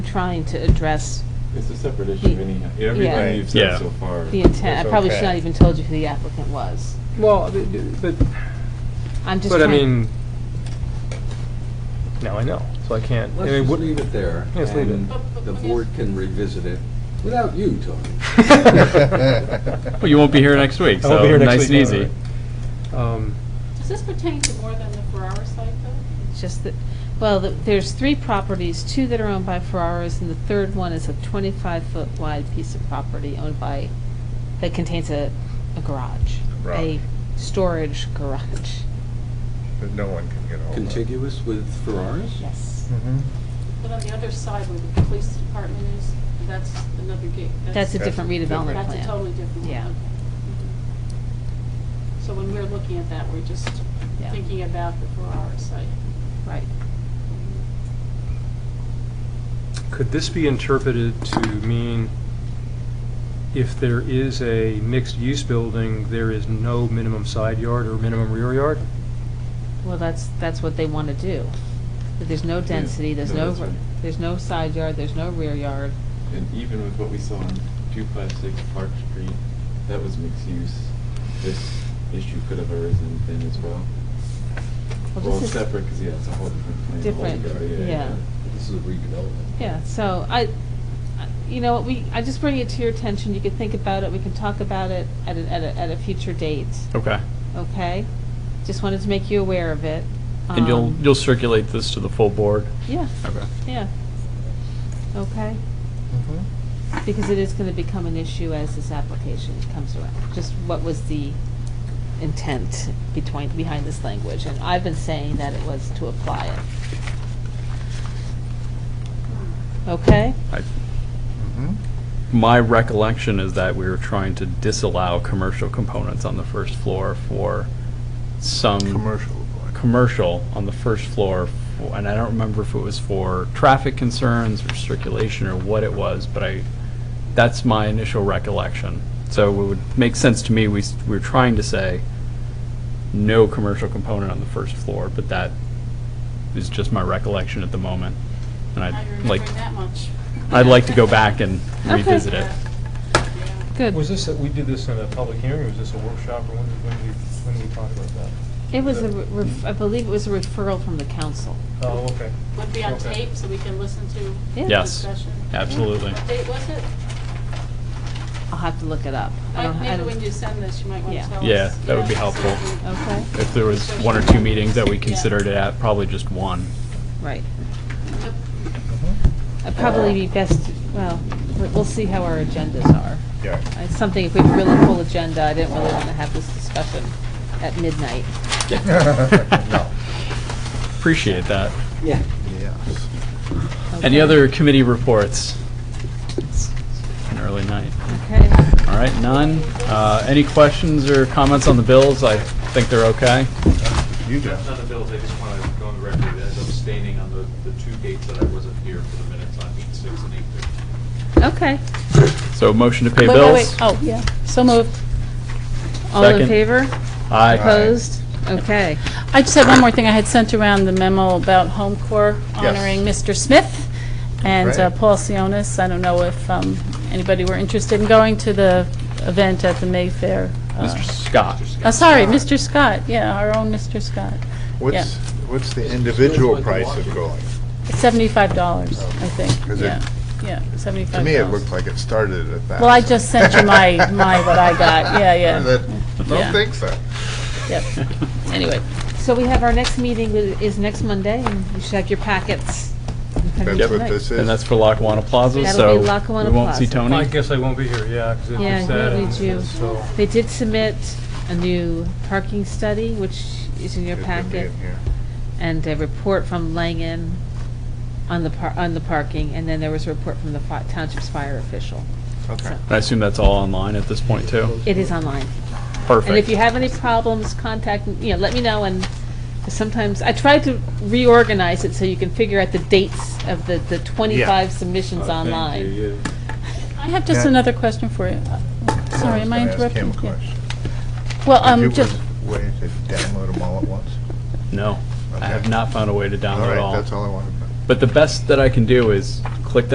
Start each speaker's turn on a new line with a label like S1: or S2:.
S1: trying to address
S2: It's a separate issue anyhow,
S1: Yeah.
S2: everything you've said
S3: Yeah.
S2: so far.
S1: the intent. I
S3: That's
S1: probably should
S3: okay.
S1: not even told you who the applicant was.
S3: Well, th- th- but,
S1: I'm just
S3: but I
S1: trying.
S3: mean, now I know, so I can't. I
S4: Let's
S3: mean,
S4: just
S3: what-
S4: leave it there.
S3: Yes, leave it.
S4: and The board can revisit it without you, Tony.
S5: Well, you won't be here next week,
S3: I won't be
S5: so
S3: here next
S5: nice and
S3: week,
S5: easy.
S3: Um,
S6: Does this pertain to more than the Ferrara site, though?
S1: It's just that, well, th- there's three properties, two that are owned by Ferraras, and the third one is a 25-foot wide piece of property owned by, that contains a, a garage, a
S7: Right.
S1: storage garage.
S7: that no one can get hold of. Mm-hmm.
S4: Contiguous with Ferraris?
S1: Yes.
S3: Hmm.
S6: But on the other side where the police department is, that's another gate.
S1: That's a
S7: That's
S1: different
S7: different.
S1: redevelopment
S6: That's a totally
S1: plan.
S6: different one.
S1: Yeah.
S6: okay. Mhm. So when we're looking at that, we're just
S1: Yeah.
S6: thinking about the Ferrara site.
S1: Right.
S3: Could this be interpreted to mean if there is a mixed-use building, there is no minimum side yard or minimum rear yard?
S1: Well, that's, that's what they want to do. But there's no density, there's
S2: No,
S1: no,
S2: that's
S1: re-
S2: right.
S1: there's no side yard, there's no rear yard.
S2: And even with what we saw on two five six Park Street, that was mixed use. This issue could have arisen then as well.
S1: Well,
S2: Well,
S1: this is-
S2: separate, because, yeah, it's a whole different plan.
S1: Different,
S2: altogether,
S1: yeah.
S4: This is a redevelopment.
S1: Yeah, so I, I- you know, what, we, I just bring it to your attention, you can think about it, we can talk about it at a, at a, at a future date,
S5: Okay.
S1: okay? Just wanted to make you aware of it.
S5: And you'll,
S1: Um,
S5: you'll circulate this to the full board?
S1: Yeah,
S5: Okay.
S1: yeah. Okay,
S7: Mm-hmm.
S1: because it is gonna become an issue as this application comes around, just what was the intent between, behind this language? And I've been saying that it was to apply it. Okay?
S5: I-
S7: Mm-hmm.
S5: My recollection is that we were trying to disallow commercial components on the first floor for some.
S7: Commercial.
S5: Commercial on the first floor, for- and I don't remember if it was for traffic concerns or circulation or what it was, but I, that's my initial recollection. So it would make sense to me, we, s- we were trying to say, no commercial component on the first floor, but that is just my recollection at the moment. And
S6: I
S5: I'd like,
S6: remember that much.
S5: I'd like to go back and
S1: Okay.
S5: revisit it.
S6: Yeah.
S1: Good.
S3: Was this, a- we did this in a public hearing, or was this a workshop, or when did, when did we, when did we talk about that?
S1: It was a, re- ref- I believe it was a referral from the council.
S3: Oh, okay.
S6: Would be on
S3: Okay.
S6: tape, so we can listen to
S1: Yeah.
S6: the
S5: Yes,
S6: discussion.
S5: absolutely.
S6: What date was it?
S1: I'll have to look it up. I
S6: Mike,
S1: don't- I
S6: Maybe
S1: don't-
S6: when you send this, you might want
S1: Yeah.
S6: to tell us.
S5: Yeah, that would be
S6: so we
S5: helpful.
S6: can-
S1: Okay,
S5: If there was one or two meetings that we considered it at, probably just one.
S1: right.
S6: Yep.
S7: Mm-hmm.
S1: I'd probably be best, well, we- we'll see how our agendas are.
S7: Yeah.
S1: It's something, if we have a really full agenda, I didn't really want to have this discussion at midnight.
S7: No.
S5: Appreciate that.
S4: Yeah.
S7: Yes.
S5: Any
S1: Okay.
S5: other committee reports? It's An early night.
S1: Okay,
S5: All right, none. Uh, Any questions or comments on the bills? I think they're okay.
S7: You do.
S8: Not the bills, I just want to go on the record as abstaining on the, the two dates that I wasn't here for the minutes on eight six and eight fifteen.
S1: okay.
S5: So motion to pay
S1: Wait, wait,
S5: bills?
S1: wait. Oh, yeah, so moved. All in
S5: Second.
S1: favor?
S5: Aye.
S1: Opposed? Okay.
S6: I just had one more thing. I had sent around the memo about Home Corps
S7: Yes.
S6: honoring Mr. Smith and uh,
S7: Great.
S6: Paul Sionis. I don't know if um, anybody were interested in going to the event at the Mayfair. uh,
S5: Mr. Scott.
S6: Oh, sorry,
S7: Scott.
S6: Mr. Scott, yeah, our own Mr. Scott.
S7: What's, what's the individual price of going? Oh.
S6: It's $75, I think,
S7: Is it-
S6: yeah, yeah, $75.
S7: To me, it looked like it started at that.
S6: Well, I just sent you my, my, what I got, yeah, yeah, Yeah.
S7: Don't think so.
S6: yeah. Anyway,
S1: So we have our next meeting wi- is next Monday, and you should have your packets.
S7: That's what this is.
S5: And that's for Lackawanna Plaza,
S1: That'll
S5: so
S1: be
S5: we
S1: Lackawanna
S5: won't see
S1: Plaza.
S3: I
S5: Tony.
S3: guess I won't be here, yeah, because
S1: Yeah,
S3: it's
S1: I
S3: that,
S1: really
S3: and
S1: do.
S3: so.
S1: They did submit a new parking study, which is in your
S7: It could be
S1: packet,
S7: in here.
S1: and a report from Langen on the par, on the parking, and then there was a report from the fi- township's fire official.
S7: Okay.
S5: I assume that's all online at this point, too?
S1: It is online.
S5: Perfect.
S1: And if you have any problems, contact, m- you know, let me know, and sometimes, I tried to reorganize it so you can figure out the dates of the, the twenty-five submissions
S2: Oh, thank
S1: online.
S2: you, yeah.
S6: I have just
S7: Yeah.
S6: another question for you. Uh, Sorry, am I
S7: was gonna Ask him
S6: interrupting? Yeah.
S7: a question.
S6: Well,
S7: If you
S6: um,
S7: was
S6: just,
S7: Waiting to download them all at once?
S5: No, I have
S7: Okay.
S5: not found a way to
S7: All
S5: download
S7: right,
S5: all.
S7: that's all I wanted. to know.
S5: But the best that I can do is